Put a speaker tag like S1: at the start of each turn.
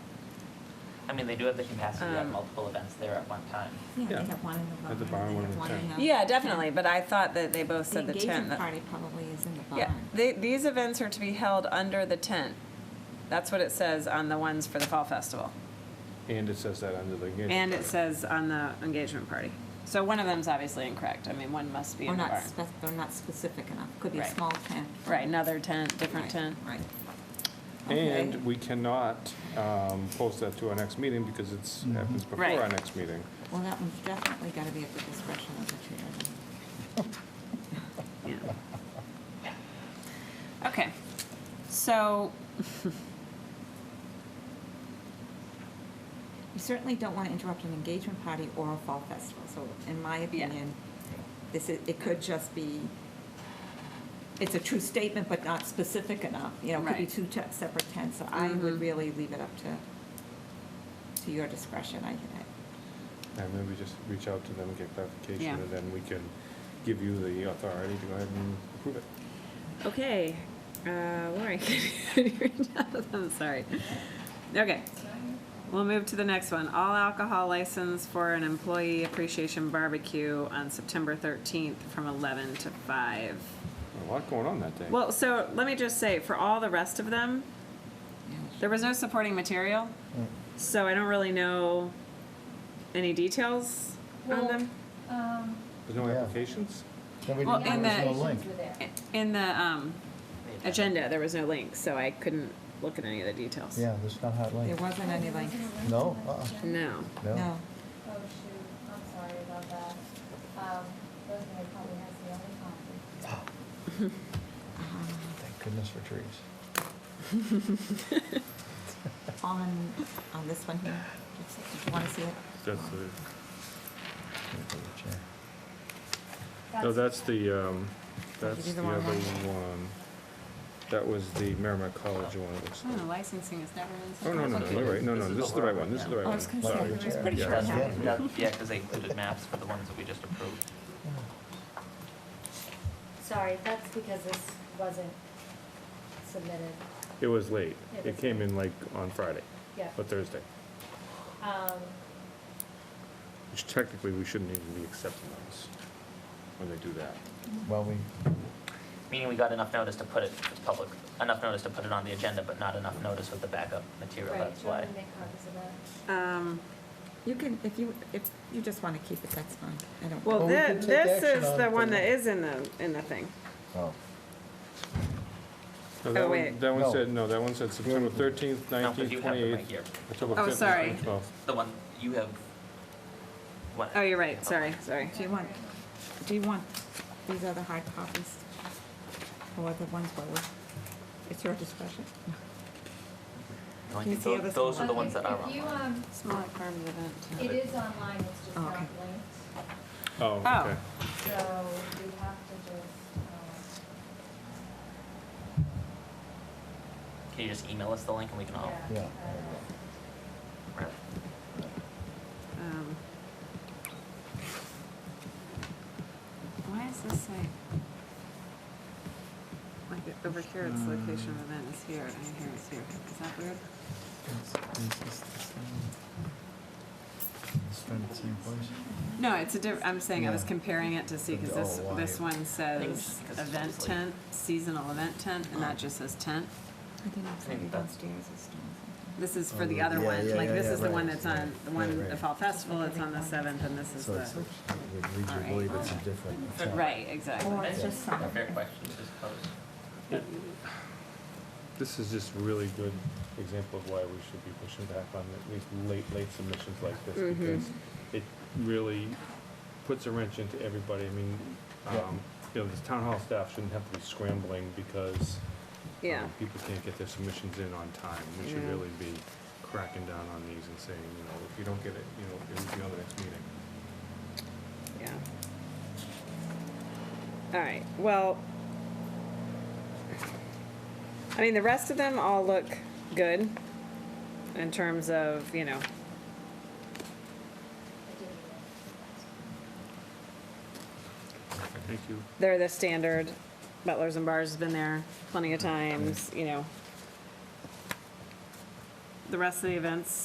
S1: I mean, they do have the capacity to have
S2: Um,
S1: multiple events there at one time.
S3: Yeah, they
S4: Yeah.
S3: have one in the barn.
S4: At the barn,
S3: they
S4: one
S3: have
S4: in the
S3: in
S4: tent.
S3: the-
S2: Yeah, definitely, but I thought that they both
S3: The
S2: said the tent.
S3: engagement
S2: that-
S3: party probably is in the barn.
S2: Yeah, they, these events are to be held under the tent. That's what it says on the ones for the fall festival.
S4: And it says that under the engagement.
S2: And it
S4: letter.
S2: says on the engagement party. So one of them's obviously incorrect. I mean, one must be
S3: Or
S2: in the
S3: not,
S2: barn.
S3: spec- they're not specific enough, could be a
S2: Right.
S3: small tent.
S2: Right, another tent, different
S3: Right,
S2: tent.
S3: Right. Okay.
S4: And we cannot um, post that to our next meeting because it's, happens before
S2: Right.
S4: our next meeting.
S3: Well, that one's definitely got to be at the discretion of the chair.
S2: Yeah. Okay, so,
S3: You certainly don't want to interrupt an engagement party or a fall festival, so in my opinion, this is, it could just be, it's a true statement, but not specific enough, you know, it could be
S2: Right.
S3: two te- separate tents, so I
S2: Mhm.
S3: would really leave it up to, to your discretion, I, I-
S4: And maybe just reach out to them and get
S2: Yeah.
S4: clarification, and then we can give you the authority to go ahead and approve it.
S2: okay, uh, Lori, can you read out of them? Sorry. Okay. We'll move to the next one. All alcohol license for an employee appreciation barbecue on September 13th from 11 to 5.
S4: A lot going on that day.
S2: Well, so let me just say, for all the rest of them,
S3: yeah.
S2: there was no supporting material, so I don't really know any details on
S5: Well-
S2: them.
S5: Um,
S4: There's no
S6: Yeah.
S4: applications?
S6: Nobody,
S2: Well,
S6: there
S2: and
S6: was no
S2: the-
S6: link.
S5: were there.
S2: In the um,
S1: They have-
S2: agenda, there was no link, so I couldn't look at any of the details.
S6: Yeah, there's no hot
S3: There
S6: link.
S3: wasn't any like,
S6: No, uh-uh.
S2: No.
S6: No.
S3: no,
S5: Oh, shoot, Oh, I'm sorry about that. Um, Rosemary probably has the only copy.
S6: Oh,
S3: uh-huh,
S6: Thank goodness for trees.
S3: on, on this one here, do you want to see it?
S4: That's the,
S6: Let me go to the chair.
S4: no, that's the, um, that's
S3: Did you do
S4: the
S3: the
S4: other
S3: wrong
S4: one. That was the Merrimack College one, it looks
S2: Oh,
S4: like.
S2: licensing has never been.
S4: Oh, no, no, no, you're right, no, no, this is the right one, this is the right
S3: Oh, I
S4: one,
S3: was gonna say,
S4: sorry.
S3: it was pretty
S4: Yeah.
S3: sure.
S1: That's-
S3: Yeah.
S1: that- Yeah, because they included maps for the ones that we just approved.
S5: Sorry, that's because this wasn't submitted,
S4: It was late,
S5: It
S4: it
S5: was
S4: came in like on Friday,
S5: yeah.
S4: or Thursday,
S5: Um,
S4: which technically we shouldn't even be accepting those when they do that.
S6: Well, we,
S1: Meaning we got enough notice to put it, it's public, enough notice to put it on the agenda, but not enough notice with the backup material,
S5: right,
S1: that's
S5: do you want
S1: why.
S5: me to make copies of that?
S2: Um,
S3: You can, if you, if you just want to keep it, that's fine, I don't.
S2: well,
S6: Well, we
S2: thi-
S6: could take
S2: this
S6: action
S2: is
S6: on
S2: the
S6: it
S2: one
S6: for-
S2: that is in the, in the thing.
S6: oh,
S4: No,
S2: Oh,
S4: that one,
S2: wait.
S4: that one
S6: No.
S4: said, no, that one said September thirteenth,
S1: No, but
S4: nineteenth,
S1: you have them right
S4: twenty-eighth,
S1: here.
S4: October
S2: Oh,
S4: fifth,
S2: sorry.
S4: and twelfth.
S1: The one, you have. one-
S2: Oh, you're right, sorry, sorry.
S3: Do you want, do you want these other hard copies? Or the ones where we're- it's your discretion?
S1: No, I
S3: Can you
S1: think
S3: see
S1: tho-
S3: this
S1: Those
S3: one?
S1: are the ones that are
S5: Okay, if you,
S1: online.
S5: um,
S2: Smaller farm event.
S5: it is online, it's just
S3: Oh,
S5: not
S3: okay.
S5: linked,
S4: Oh,
S2: Oh.
S4: okay.
S5: so we have to just, um,
S1: Can you just email us the link and we can
S5: um,
S1: all?
S5: yeah.
S6: yeah.
S5: uh,
S2: Um, Why is this like, like it- over here, it's location of event is here, and here it's here. Is that weird?
S6: It's from the same place.
S2: No, it's a diff, I'm saying I was
S6: Yeah.
S2: comparing it to see, because this,
S6: Oh, why?
S2: this one says
S1: Things- 'cause it's
S2: event
S1: just like-
S2: tent, seasonal event tent, and that just says tent.
S3: I think it's
S1: think
S3: like
S1: that's-
S3: downstairs or something.
S2: This is for
S6: Oh,
S2: the
S6: yeah,
S2: other one,
S6: yeah,
S2: like
S6: yeah,
S2: this
S6: yeah,
S2: is the
S6: right,
S2: one that's on, the
S6: right,
S2: one,
S6: right.
S2: the fall festival, it's on the seventh, and this is
S6: So it's,
S2: the,
S6: it leads you to
S2: Alright.
S6: believe it's a different. town.
S2: right, exactly.
S3: Or it's just some,
S1: Fair question, just pose.
S4: This is just really good example of why we should be pushing back on at least late, late submissions like this,
S2: Mm-hmm.
S4: because it really puts a wrench into everybody, I mean,
S6: Yeah.
S4: um, you know, these town hall staff shouldn't have to be scrambling because
S2: Yeah,
S4: um, people can't get their submissions in on time, we should
S2: Yeah.
S4: really be cracking down on these and saying, you know, if you don't get it, you know, it will be on the next meeting.
S2: yeah. All right, well, I mean, the rest of them all look good in terms of, you know,
S5: I didn't even-
S4: Thank you.
S2: they're the standard, Butlers and Bars has been there plenty of times, you know. The rest of the events